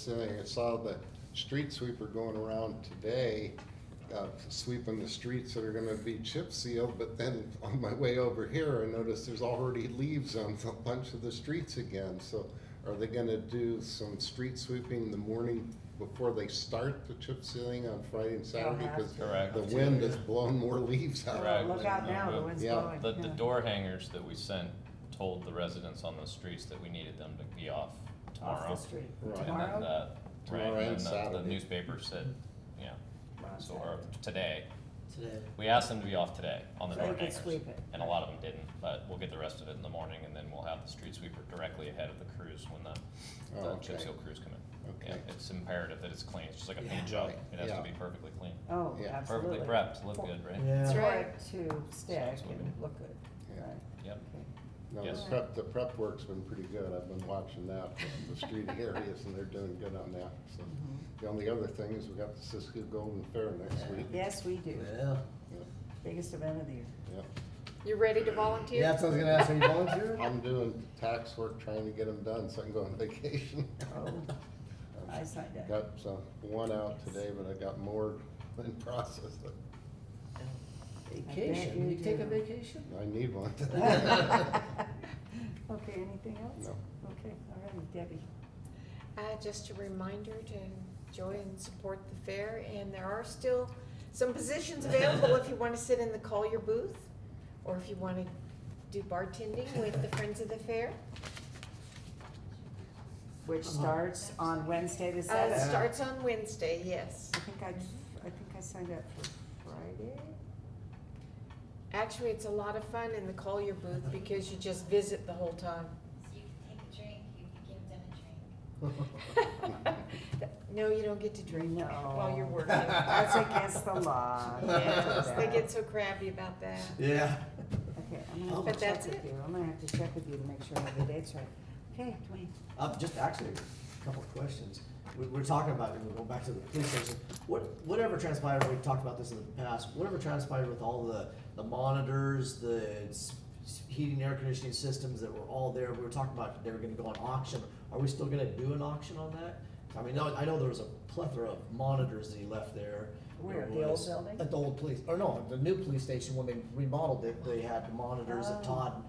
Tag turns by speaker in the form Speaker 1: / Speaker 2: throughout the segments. Speaker 1: Saying, I saw the street sweeper going around today, uh, sweeping the streets that are gonna be chip sealed, but then on my way over here, I noticed there's already leaves on a bunch of the streets again, so are they gonna do some street sweeping the morning before they start the chip sealing on Friday and Saturday?
Speaker 2: have
Speaker 1: Because
Speaker 2: to.
Speaker 3: Correct.
Speaker 1: the wind has blown more leaves
Speaker 3: Correct.
Speaker 1: out.
Speaker 2: Look out now, the wind's
Speaker 1: Yeah.
Speaker 2: blowing.
Speaker 3: The, the
Speaker 2: yeah.
Speaker 3: door hangers that we sent told the residents on those streets that we needed them to be off
Speaker 2: Off
Speaker 3: tomorrow.
Speaker 2: the street.
Speaker 1: Right.
Speaker 3: And then
Speaker 2: Tomorrow?
Speaker 3: the- Right,
Speaker 1: Tomorrow and
Speaker 3: and then the, the
Speaker 1: Saturday.
Speaker 3: newspaper said, yeah, so, or today,
Speaker 4: today.
Speaker 3: we asked them to be off today on the
Speaker 2: So they
Speaker 3: door
Speaker 2: could
Speaker 3: hangers.
Speaker 2: sweep it.
Speaker 3: And a lot of them didn't, but we'll get the rest of it in the morning and then we'll have the street sweeper directly ahead of the crews when
Speaker 1: Oh,
Speaker 3: the, the chip
Speaker 1: okay.
Speaker 3: seal crews come in. Yeah,
Speaker 1: Okay.
Speaker 3: It's imperative that it's clean, it's just like a
Speaker 4: Yeah.
Speaker 3: paint job,
Speaker 1: Right,
Speaker 3: it has to
Speaker 1: yeah.
Speaker 3: be perfectly clean,
Speaker 2: Oh,
Speaker 1: Yeah.
Speaker 2: absolutely.
Speaker 3: perfectly prepped, to look good, right?
Speaker 2: It's
Speaker 4: Yeah.
Speaker 5: Right.
Speaker 2: hard to stick
Speaker 3: Sounds
Speaker 2: and look good,
Speaker 1: Yeah.
Speaker 2: right?
Speaker 3: Yep,
Speaker 2: Okay.
Speaker 1: No, the
Speaker 3: Yes.
Speaker 1: prep, the prep work's been pretty good, I've been watching that, from the street areas, and they're doing good on that, so.
Speaker 6: Mm-hmm.
Speaker 3: Mm-hmm.
Speaker 1: The only other thing is we got the Cisco Golden Fair next week.
Speaker 2: Yes, we do.
Speaker 4: Well,
Speaker 1: Yeah,
Speaker 2: Biggest event of the year.
Speaker 1: yeah.
Speaker 5: You ready to volunteer?
Speaker 4: yeah, so I was gonna ask, are you volunteering?
Speaker 1: I'm doing tax work, trying to get them done, so I can go on vacation.
Speaker 2: Oh, I signed up.
Speaker 1: Got some, one out today, but I got more in process,
Speaker 2: I bet
Speaker 4: Vacation, you take a
Speaker 2: do.
Speaker 4: vacation?
Speaker 1: I need one.
Speaker 2: Okay, anything else?
Speaker 1: No.
Speaker 2: Okay, all right, Debbie.
Speaker 5: Uh, just a reminder to join and support the fair, and there are still some positions available if you wanna sit in the Collier booth, or if you wanna do bartending with the Friends of the Fair.
Speaker 2: Which starts on Wednesday the
Speaker 5: Uh, it
Speaker 2: seventh.
Speaker 5: starts on Wednesday, yes.
Speaker 2: I think I, I think I signed up for Friday.
Speaker 5: Actually, it's a lot of fun in the Collier booth because you just visit the whole time.
Speaker 7: So you can take a drink, you can give them a drink.
Speaker 5: No, you don't get to drink
Speaker 2: No.
Speaker 5: while you're working.
Speaker 2: That's against the law. Can't do
Speaker 5: Yes, They
Speaker 2: that.
Speaker 5: get so crabby about that.
Speaker 4: Yeah.
Speaker 2: Okay, I'm gonna have
Speaker 4: But
Speaker 2: to check
Speaker 5: that's
Speaker 2: with
Speaker 5: it.
Speaker 2: you, I'm gonna have to check with you to make sure I have the dates right. Okay, Dwayne,
Speaker 4: Uh, just actually, a couple of questions. We, we're talking about, and we're going back to the police station. What, whatever transpired, we've talked about this in the past, whatever transpired with all the, the monitors, the s- s- heating, air conditioning systems that were all there, we were talking about they were gonna go on auction. Are we still gonna do an auction on that? I mean, I I know there was a plethora of monitors that he left there.
Speaker 2: Where,
Speaker 4: It
Speaker 2: the old
Speaker 4: was-
Speaker 2: building?
Speaker 4: At the old police, or no, the new police station, when they remodeled it, they had monitors
Speaker 2: Oh. Mm-hmm.
Speaker 4: that Todd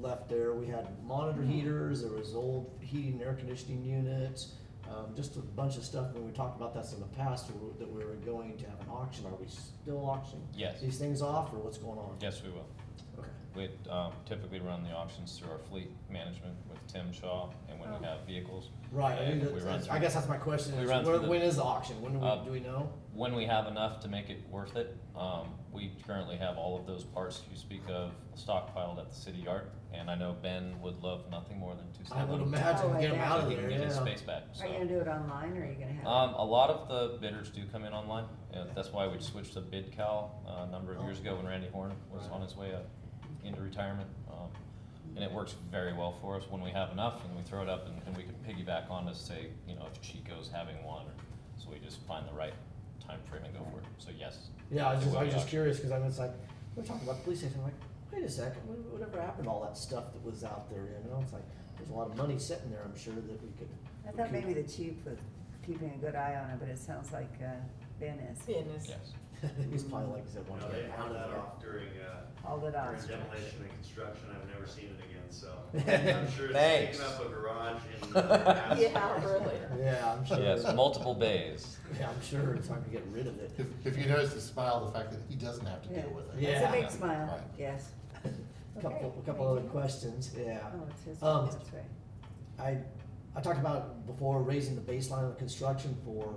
Speaker 4: left there. We had monitor heaters, there was old heating and air conditioning units, um, just a bunch of stuff. When we talked about this in the past, we were- that we were going to have an auction, are we still auctioning?
Speaker 3: Yes.
Speaker 4: These things off, or what's going on?
Speaker 3: yes, we will.
Speaker 4: Okay.
Speaker 3: We um, typically run the auctions through our fleet management with Tim Shaw, and when
Speaker 2: Oh.
Speaker 3: we have vehicles.
Speaker 4: Right, I
Speaker 3: and we
Speaker 4: mean, that's-
Speaker 3: run
Speaker 4: that's- I
Speaker 3: through-
Speaker 4: guess that's my question,
Speaker 3: we
Speaker 4: is
Speaker 3: run
Speaker 4: where-
Speaker 3: through the-
Speaker 4: when is the auction? When do
Speaker 3: Uh,
Speaker 4: we, do we know?
Speaker 3: When we have enough to make it worth it, um, we currently have all of those parts you speak of stockpiled at the city yard, and I know Ben would love nothing more than to
Speaker 4: I
Speaker 3: sell
Speaker 4: would
Speaker 3: them.
Speaker 4: imagine,
Speaker 2: Oh,
Speaker 4: get them
Speaker 2: yeah.
Speaker 4: out
Speaker 3: So
Speaker 4: of
Speaker 3: he can
Speaker 4: there,
Speaker 3: get his
Speaker 4: yeah.
Speaker 3: space back,
Speaker 2: are you gonna
Speaker 3: so.
Speaker 2: do it online or are you gonna have?
Speaker 3: Um, a lot of the bidders do come in online, and that's why we switched to bid cal, uh, a number of years ago when Randy Horn was
Speaker 4: Right.
Speaker 3: on his way up into retirement. Um, and it works very well for us when we have enough and we throw it up and, and we can piggyback on to say, you know, if Chico's having one, or, so we just find the right time frame and go for it. So yes.
Speaker 4: Yeah, I was
Speaker 3: it
Speaker 4: just,
Speaker 3: will
Speaker 4: I
Speaker 3: be
Speaker 4: was just
Speaker 3: auctioned.
Speaker 4: curious because I was like, we're talking about the police station. I'm like, wait a second, what, whatever happened to all that stuff that was out there? You know, it's like there's a lot of money sitting there. I'm sure that we could.
Speaker 2: I thought
Speaker 4: we
Speaker 2: maybe
Speaker 4: could-
Speaker 2: the chief was keeping a good eye on it, but it sounds like, uh, Ben is,
Speaker 5: Business.
Speaker 3: Yes.
Speaker 4: he's probably like I said, one
Speaker 8: No, they
Speaker 4: day out
Speaker 8: held
Speaker 4: of
Speaker 8: that
Speaker 4: there.
Speaker 8: off during, uh,
Speaker 2: hauled it off.
Speaker 8: during demolition and construction, I've never seen it again, so. I'm sure it's
Speaker 3: Thanks.
Speaker 8: taking up a garage in. uh,
Speaker 5: Yeah,
Speaker 8: Aspen.
Speaker 5: really.
Speaker 4: Yeah, I'm sure.
Speaker 3: Yes, multiple bays.
Speaker 4: yeah, I'm sure it's time to get rid of it.
Speaker 6: If, if you notice the smile, the fact that he doesn't have to deal with it.
Speaker 2: It's a
Speaker 4: Yeah.
Speaker 2: big smile,
Speaker 6: Right.
Speaker 2: yes.
Speaker 4: A couple,
Speaker 2: Okay,
Speaker 4: a couple
Speaker 2: thank
Speaker 4: other
Speaker 2: you.
Speaker 4: questions. Yeah.
Speaker 2: Oh, it's his,
Speaker 4: Um,
Speaker 2: that's right.
Speaker 4: I, I talked about before raising the baseline of construction for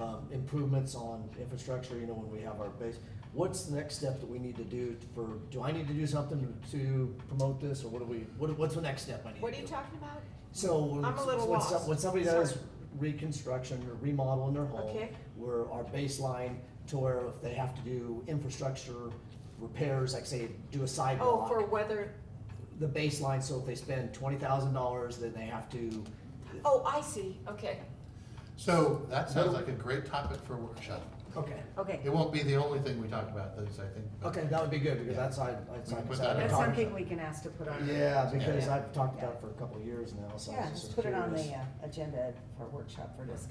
Speaker 4: um, improvements on infrastructure, you know, when we have our base. What's the next step that we need to do for, do I need to do something to promote this, or what do we, what, what's the next step I need to do?
Speaker 5: What are you talking about?
Speaker 4: So, when,
Speaker 5: I'm a little
Speaker 4: when some-
Speaker 5: lost.
Speaker 4: when somebody does
Speaker 5: Sorry.
Speaker 4: reconstruction or remodel in their home,
Speaker 5: Okay.
Speaker 4: where our baseline to where if they have to do infrastructure repairs, like say, do a
Speaker 5: Oh,
Speaker 4: sidewalk
Speaker 5: for weather,
Speaker 4: the baseline, so if they spend twenty thousand dollars, then they have to.
Speaker 5: oh, I see, okay.
Speaker 6: So that sounds like a great topic for a workshop.
Speaker 4: Okay.
Speaker 2: Okay,
Speaker 6: It won't be the only thing we talked about, those, I think. but-
Speaker 4: Okay, that would be good, because
Speaker 6: Yeah.
Speaker 4: that's, I, I.
Speaker 6: We can put
Speaker 4: I-
Speaker 6: that in.
Speaker 2: that's
Speaker 6: Talk-
Speaker 2: something we can ask to put on. the-
Speaker 4: Yeah, because
Speaker 2: Yeah.
Speaker 4: I've talked about it for a couple of years now, so I
Speaker 2: Yeah,
Speaker 4: was
Speaker 2: just
Speaker 4: just
Speaker 2: put it on the
Speaker 4: curious.
Speaker 2: uh, agenda for workshop for discussion.